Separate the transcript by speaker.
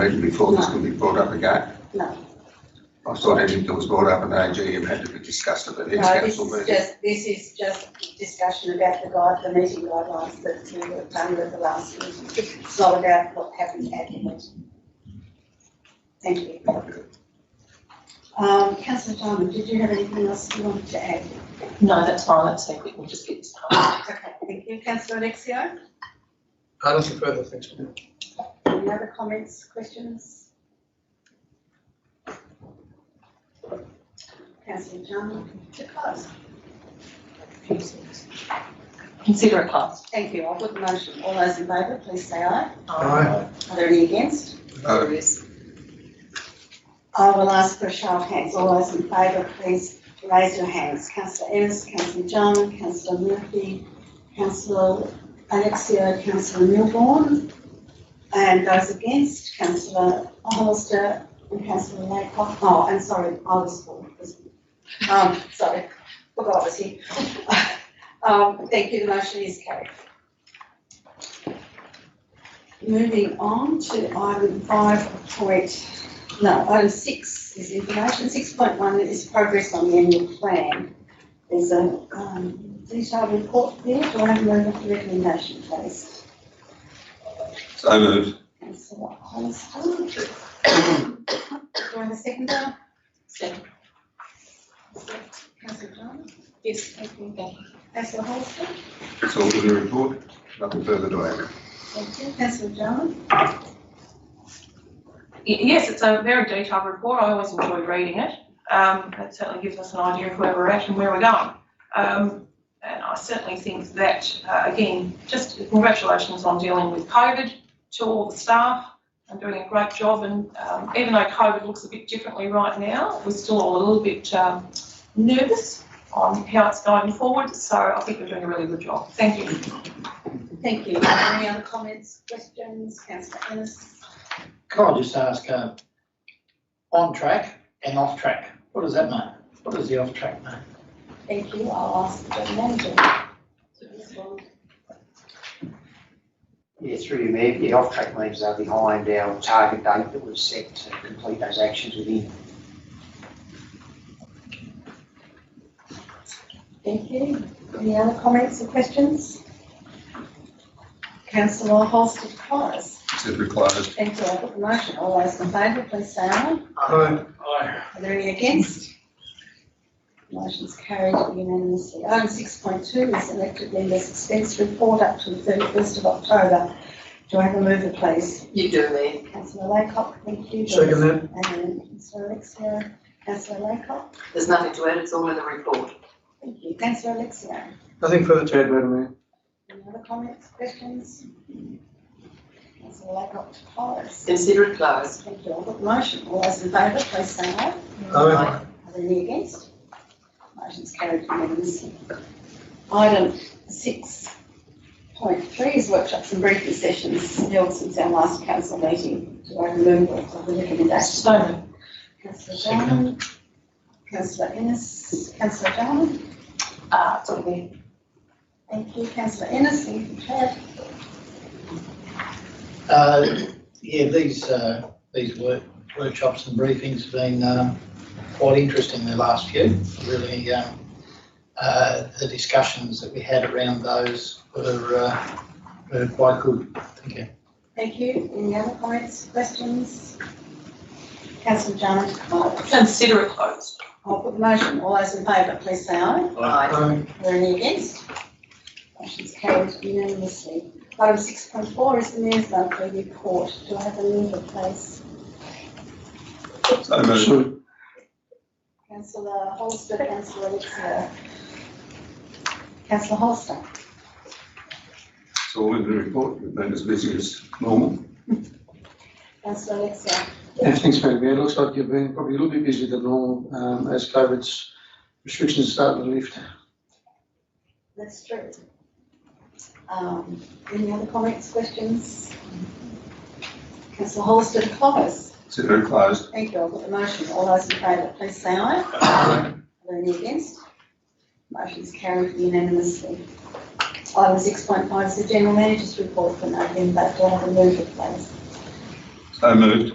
Speaker 1: right, before this can be brought up again?
Speaker 2: No.
Speaker 1: I thought everything was brought up and AGM had to be discussed at the next
Speaker 2: No, this
Speaker 1: council
Speaker 2: is
Speaker 1: meeting.
Speaker 2: just, this is just discussion about the guide, the meeting guidelines that we were done with the last meeting. It's not about what happened at the meeting. Thank you. Um, councillor Diamond, did you have anything else you wanted to add?
Speaker 3: No, that's fine, that's so quick, we'll just get this done.
Speaker 2: Okay, thank you. Councillor Alexio,
Speaker 4: Uh, nothing further, thanks, Chair.
Speaker 2: any other comments, questions? Councillor Diamond, to close.
Speaker 3: Consider it closed.
Speaker 2: Thank you. I'll put the motion. All those in favour, please say aye.
Speaker 4: Aye.
Speaker 2: Are there any against?
Speaker 1: Uh,
Speaker 3: There is.
Speaker 2: I will ask for a show of hands. All those in favour, please raise your hands. Councillor Ennis, Councillor John, Councillor Murphy, Councillor Alexia, Councillor Milborn. And those against, Councillor Hollister and Councillor Laycock. Oh, I'm sorry, I was for. Um, sorry, forgot I was here. Um, thank you, the motion is carried. Moving on to item five point no, item six is information, six point one is progress on the annual plan. There's a, um, detailed report there, do I have a motion for recommendation, please?
Speaker 1: So moved.
Speaker 2: Councillor Hollister. Do I have a second there?
Speaker 3: Second.
Speaker 2: Councillor John?
Speaker 3: Yes, thank you. Okay.
Speaker 2: Councillor Hollister?
Speaker 1: It's all in the report, nothing further to add.
Speaker 2: Thank you. Councillor John?
Speaker 3: Y- Yes, it's a very detailed report, I always enjoy reading it. Um, It certainly gives us an idea of where we're at and where we're going. Um, And I certainly think that, uh, again, just congratulations on dealing with COVID to all the staff and doing a great job. And um, even though COVID looks a bit differently right now, we're still all a little bit um, nervous on how it's going forward, so I think we're doing a really good job. Thank you.
Speaker 2: Thank you. Are there Any other comments, questions? Councillor Ennis?
Speaker 5: Can I just ask, um, on track and off track, what does that mean? What does the off track mean?
Speaker 2: Thank you. I'll ask the general manager to respond.
Speaker 6: Yeah, through you, Mayor. Yeah, off-track leaves are behind our target date that was set to complete those actions within.
Speaker 2: Thank you. Any other comments or questions? Councillor Holster to close.
Speaker 1: Said we closed.
Speaker 2: Thank you. I put the motion. All those in favour, please say aye.
Speaker 4: Aye.
Speaker 2: Are there any against? Motion's carried unanimously. Item six point two is elected members' expense report up to the thirty-first of October. Do I have a mover, please?
Speaker 3: You do, Lee.
Speaker 2: Councillor Laycock, thank you.
Speaker 4: Second that.
Speaker 2: And Councillor Alexia, Councillor Laycock,
Speaker 7: There's nothing to add, it's all in the report.
Speaker 2: thank you. Councillor Alexia.
Speaker 4: Nothing further to add, Madam Mayor.
Speaker 2: Any other comments, questions? Councillor Laycock to close.
Speaker 7: Consider it closed.
Speaker 2: Thank you. I'll put the motion. All those in favour, please say aye.
Speaker 4: Aye.
Speaker 2: Are there any against? Motion's carried unanimously. Item six point three is workshops and briefing sessions held since our last council meeting. Do I have a mover of the recommendation?
Speaker 3: So moved.
Speaker 2: Councillor Jarman, councillor Ennis, councillor Jarman.
Speaker 3: Uh, it's all there.
Speaker 2: Thank you, councillor Ennis, thank you, Chair.
Speaker 5: Uh, yeah, these, uh, these work, workshops and briefings have been, um, quite interesting the last few. Really, um, uh, the discussions that we had around those were, uh, were quite good. Thank you.
Speaker 2: Thank you. Any other comments, questions? Councillor Jarman to close.
Speaker 3: Consider it closed.
Speaker 2: I'll put the motion. All those in favour, please say aye.
Speaker 7: Aye.
Speaker 4: Aye.
Speaker 2: Are there any against? Motion's carried unanimously. Item six point four is the mayor's monthly report. Do I have a mover, please?
Speaker 1: So moved.
Speaker 2: Councillor Holster, councillor Alexia. Councillor Holster.
Speaker 1: It's all in the report, we've been as busy as normal.
Speaker 2: Councillor Alexia.
Speaker 8: Yeah, thanks, Madam Mayor. It looks like you've been probably a little bit busier than normal, um, as COVID's restrictions start to lift.
Speaker 2: That's true. Um, any other comments, questions? Councillor Holster to close.
Speaker 1: Said we closed.
Speaker 2: Thank you. I'll put the motion. All those in favour, please say aye.
Speaker 1: Aye.
Speaker 2: Are there any against? Motion's carried unanimously. Item six point five is the general manager's report for November. Do I have a mover, please?
Speaker 1: So moved.